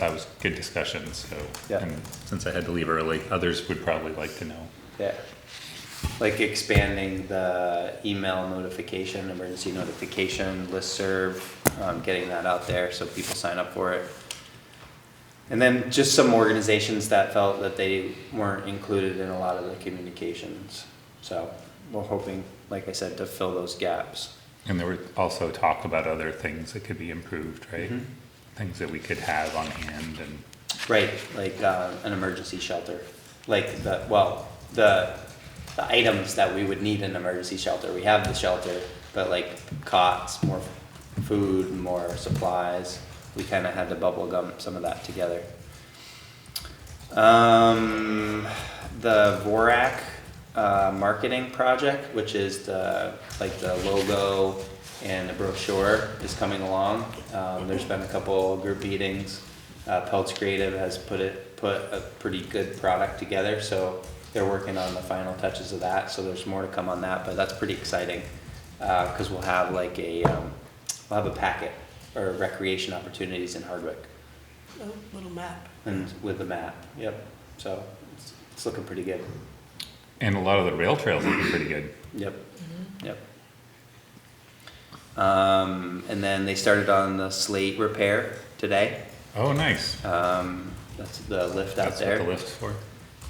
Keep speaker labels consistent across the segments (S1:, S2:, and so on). S1: That was good discussion, so,
S2: Yeah.
S1: and since I had to leave early, others would probably like to know.
S2: Yeah. Like expanding the email notification, emergency notification, listserv, um, getting that out there so people sign up for it. And then just some organizations that felt that they weren't included in a lot of the communications. So we're hoping, like I said, to fill those gaps.
S1: And there were also talk about other things that could be improved, right?
S2: Mhm.
S1: Things that we could have on hand and,
S2: Right, like, uh, an emergency shelter, like the, well, the, the items that we would need in an emergency shelter, we have the shelter, but like cots, more food, more supplies, we kinda had to bubble gum some of that together. Um, the Vorak, uh, marketing project, which is the, like the logo and the brochure is coming along. Um, there's been a couple group meetings. Uh, Pelts Creative has put it, put a pretty good product together, so they're working on the final touches of that, so there's more to come on that, but that's pretty exciting. Uh, cause we'll have like a, um, we'll have a packet or recreation opportunities in Hardwick
S3: a little map.
S2: and with the map, yep, so it's, it's looking pretty good,
S1: and a lot of the rail trails would be pretty good.
S2: yep, yep. Um, and then they started on the slate repair today,
S1: Oh, nice.
S2: um, that's the lift out
S1: That's
S2: there.
S1: what the lift's for.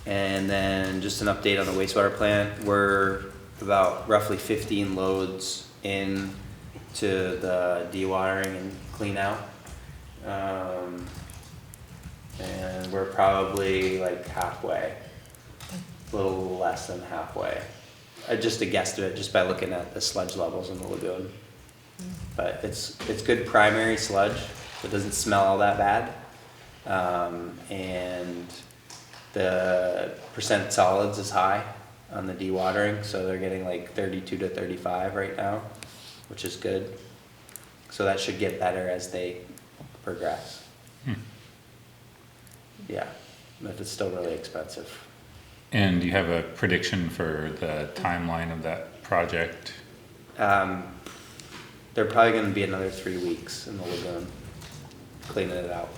S2: And then just an update on the wastewater plant, we're about roughly fifteen loads in to the dewatering and clean out. Um, and we're probably like halfway, a little less than halfway. I just a guesstimate, just by looking at the sludge levels in the lagoon. But it's, it's good primary sludge, it doesn't smell all that bad. Um, and the percent solids is high on the dewatering, so they're getting like thirty-two to thirty-five right now, which is good. So that should get better as they progress.
S1: Hmm.
S2: Yeah, but it's still really expensive.
S1: And you have a prediction for the timeline of that project?
S2: Um, they're probably gonna be another three weeks in the lagoon, cleaning it out.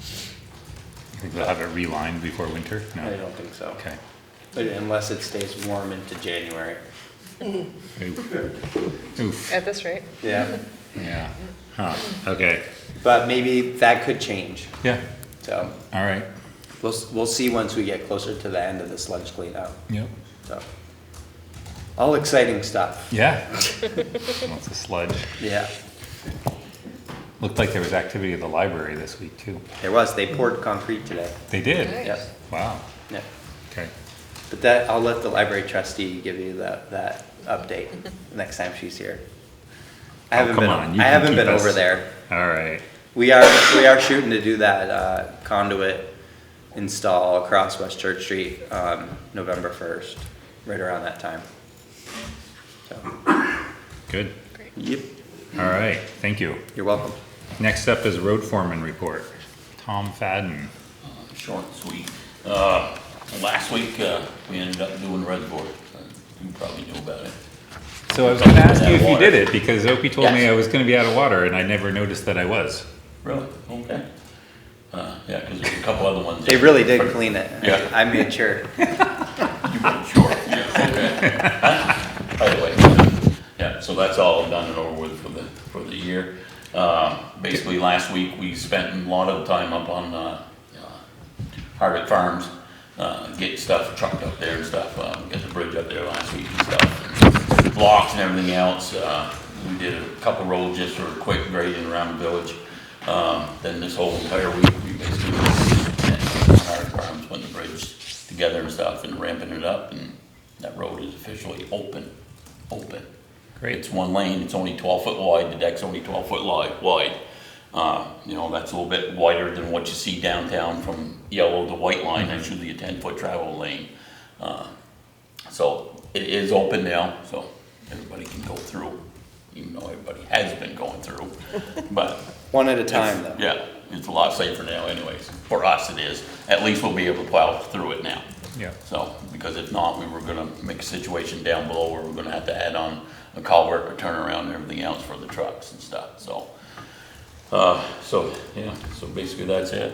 S1: You think they'll have it relined before winter? No?
S2: I don't think so.
S1: Hmm. Okay.
S2: But Unless it stays warm into January.
S1: Oof. Oof,
S4: At this rate?
S2: Yeah.
S1: yeah. Huh, okay.
S2: But maybe that could change,
S1: Yeah,
S2: so.
S1: all right.
S2: We'll, we'll see once we get closer to the end of this lunch cleanout,
S1: Yep.
S2: so. All exciting stuff,
S1: Yeah. Lots of sludge.
S2: yeah.
S1: Looked like there was activity at the library this week too.
S2: There was, they poured concrete today,
S1: They did?
S4: Nice.
S2: yeah,
S1: Wow,
S2: yeah.
S1: okay.
S2: But that, I'll let the library trustee give you that, that update next time she's here. I
S1: Oh,
S2: haven't
S1: come
S2: been,
S1: on, you
S2: I
S1: can
S2: haven't
S1: keep
S2: been
S1: us-
S2: over there.
S1: All right,
S2: We are, we are shooting to do that uh, conduit install across West Church Street, um, November first, right around that time. So,
S1: good.
S4: Great.
S2: yep,
S1: All right, thank you.
S2: you're welcome.
S1: Next up is road foreman report. Tom Fadden.
S5: Short and sweet. Uh, last week, uh, we ended up doing reservoir. You probably knew about it.
S1: So I was gonna ask you
S5: Out
S1: if
S5: of
S1: you
S5: water.
S1: did it because Opie told me
S5: Yes.
S1: I was gonna be out of water and I never noticed that I was.
S5: Really? Okay. Uh, yeah, because there's a couple other ones.
S2: They really did clean it.
S5: Yeah.
S2: I made sure.
S5: You were sure, yeah, okay. Huh? By the way, yeah, so that's all done and over with for the, for the year. Um, Basically, last week, we spent a lot of time up on uh, uh, Hardwick Farms, uh, getting stuff trucked up there and stuff, uh, we got the bridge up there last week and stuff. Blocks and everything else, Uh, we did a couple roads just for a quick grading around the village. Um, Then this whole entire week, we basically spent on Hardwick Farms putting the bridge together and stuff and ramping it up, and that road is officially open, open.
S1: Great.
S5: It's one lane, it's only twelve foot wide, the deck's only twelve foot li- wide. Uh, you know, that's a little bit wider than what you see downtown from yellow to white line, that's usually a ten foot travel lane. Uh, So it is open now, so everybody can go through, even though everybody has been going through, but.
S2: One at a time, though.
S5: Yeah, it's a lot safer now anyways, for us it is, at least we'll be able to plow through it now.
S1: Yeah.
S5: So, because if not, we were gonna make a situation down below where we're gonna have to add on a culvert, a turnaround and everything else for the trucks and stuff, so. Uh, so, yeah, so basically that's it.